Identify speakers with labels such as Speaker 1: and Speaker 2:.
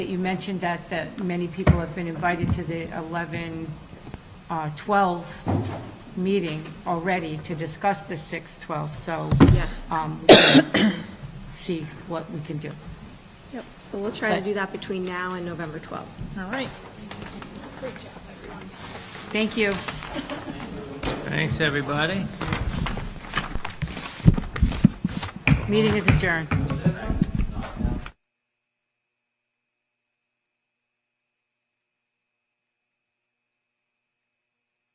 Speaker 1: You mentioned that, that many people have been invited to the 11, uh, 12 meeting already to discuss the 6, 12, so.
Speaker 2: Yes.
Speaker 1: um, we can See what we can do.
Speaker 2: Yep, so we'll try to
Speaker 1: But-
Speaker 2: do that between now and November 12th.
Speaker 3: All right.
Speaker 1: Thank you.
Speaker 4: Thanks, everybody.
Speaker 1: Meeting is adjourned.